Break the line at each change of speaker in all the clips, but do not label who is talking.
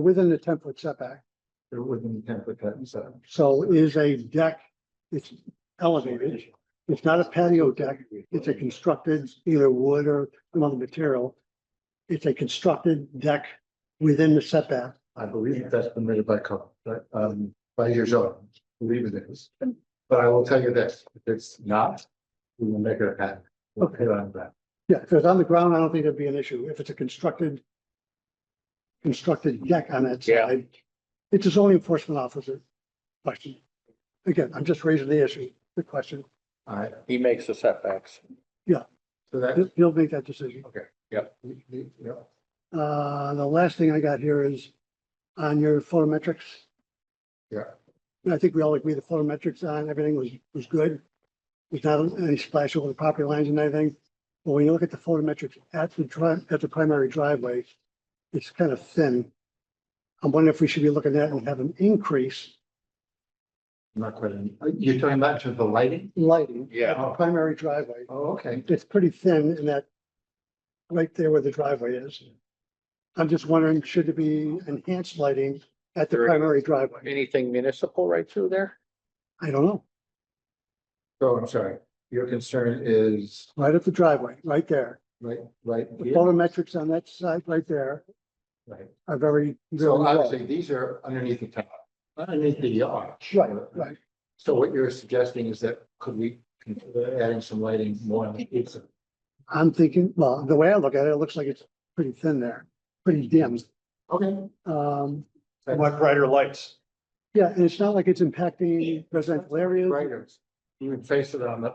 within the ten foot setback.
They're within ten foot cut and so.
So it is a deck, it's elevated, it's not a patio deck, it's a constructed either wood or some other material. It's a constructed deck within the setback.
I believe that that's permitted by code, but um by your zone, I believe it is. But I will tell you this, if it's not, we will make it a pattern. We'll
Okay.
hit on that.
Yeah, if it's on the ground, I don't think that'd be an issue. If it's a constructed constructed deck on that
Yeah.
side, it's a zoning enforcement officer question. Again, I'm just raising the issue, the question.
All right,
He makes the setbacks.
so that, uh,
He'll- He'll make that decision.
we- we- you know,
Uh, the last thing I got here is on your photometrics.
Yeah.
And I think we all agree the photometrics on everything was, was good. There's not any splash over the property lines and anything. But when you look at the photometrics at the drive, at the primary driveway, it's kind of thin. I'm wondering if we should be looking at and have an increase
not quite, any- you're talking about to the lighting?
in lighting at
Yeah.
the primary driveway.
Oh, okay.
It's pretty thin in that right there where the driveway is. I'm just wondering, should it be enhanced lighting at the
There-
primary driveway?
Anything municipal right through there?
I don't know,
So I'm sorry, your concern is
right at the driveway, right there.
right, right
The
here?
photometrics on that side right there
Right.
are very. very
So
low.
obviously, these are underneath the top, underneath the arch.
Right, right.
So what you're suggesting is that could we consider adding some lighting more on the east side?
I'm thinking, well, the way I look at it, it looks like it's pretty thin there, pretty dim.
Okay.
Um,
I want brighter lights.
yeah, and it's not like it's impacting residential areas.
Writers, you can face it on the,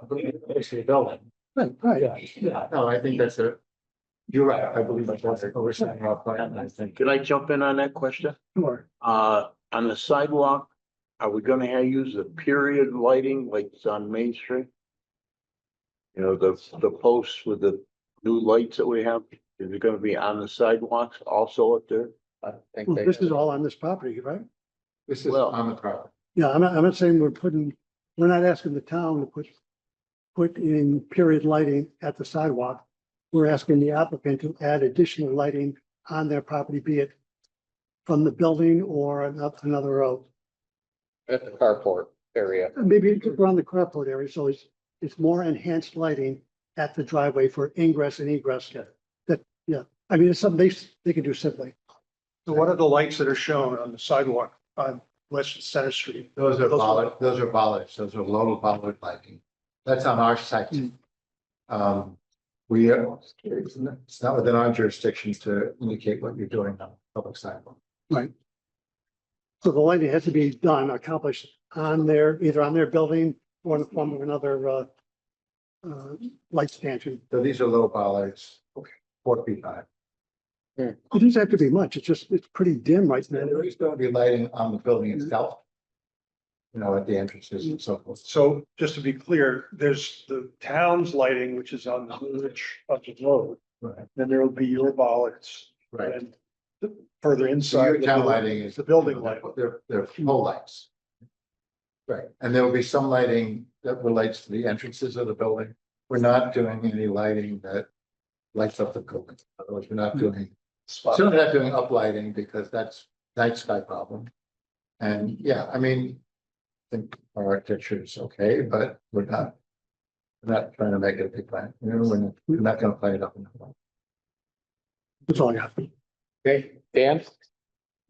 face of the building.
Right, right.
Yeah, no, I think that's a, you're right, I believe that's what we're saying. our plan, I think.
Could I jump in on that question?
Sure.
Uh, on the sidewalk, are we gonna have, use the period lighting like it's on Main Street? You know, the, the posts with the new lights that we have, is it gonna be on the sidewalks also up there?
I think
Well,
they.
this is all on this property, right?
This is
Well-
on the property.
Yeah, I'm not, I'm not saying we're putting, we're not asking the town to put, put in period lighting at the sidewalk. We're asking the applicant to add additional lighting on their property, be it from the building or an- up another road.
At the carport area.
Maybe it's around the carport area, so it's, it's more enhanced lighting at the driveway for ingress and egress.
Yeah.
That, yeah, I mean, it's something they, s- they can do simply.
So what are the lights that are shown on the sidewalk on West Center Street?
Those are
Those are-
bollard, those are bollards, those are low bollard lighting. That's on our site.
Mm.
Um, we, are- it's not it's not within our jurisdiction to indicate what you're doing on public sidewalk.
So the lighting has to be done, accomplished on their, either on their building or in the form of another, uh, uh, light stanchion.
So these are low bollards. Okay. Four feet high.
It doesn't have to be much. It's just, it's pretty dim right now.
And there is gonna be lighting on the building itself. You know, at the entrances and so forth.
So just to be clear, there's the town's lighting, which is on the ridge of the road.
Right.
Then there will be your bollards
Right.
and the- further
So
inside.
your
the
town
building-
lighting is.
The building light.
They're, they're pole lights. Right, and there will be some lighting that relates to the entrances of the building. We're not doing any lighting that lights up the building. In other words, we're not doing,
Spot.
certainly not doing uplighting because that's night sky problem. And yeah, I mean, I think our architecture is okay, but we're not, we're not trying to make it a big plan. You know, we're not- we're not gonna play it up. in the-
That's all I got.
Okay, Dan?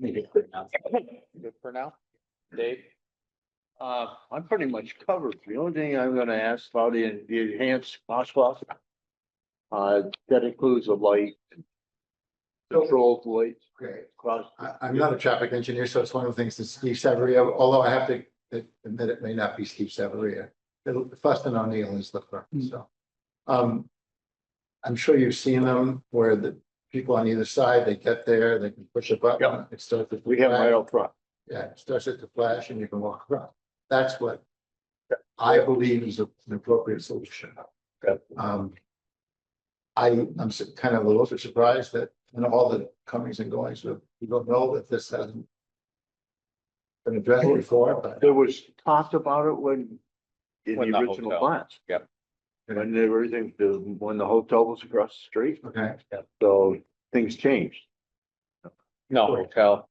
Good for now. Dave?
Uh, I'm pretty much covered. The only thing I'm gonna ask about is the enhanced crosswalk. Uh, that includes the light. Controlled lights,
Great.
cross,
I, I'm not a traffic engineer, so it's one of the things that Steve Severia, although I have to admit it may not be Steve Severia. It'll- Fuston O'Neill is the firm, so. Um, I'm sure you've seen them where the people on either side, they get there, they can push a button.
Yeah.
It starts to
we have right up front.
Yeah, it starts at the flash and you can walk around. That's what I believe is a- an appropriate solution.
Okay.
Um, I, I'm su- kind of a little bit surprised that, in all the comings and goings, that you don't know that this hasn't been addressed before, but
There was talked about it when, in
When
the
the
original
hotel.
plans.
Yep.
When everything, the- when the hotel was across the street,
okay,
so things changed.
No, hotel.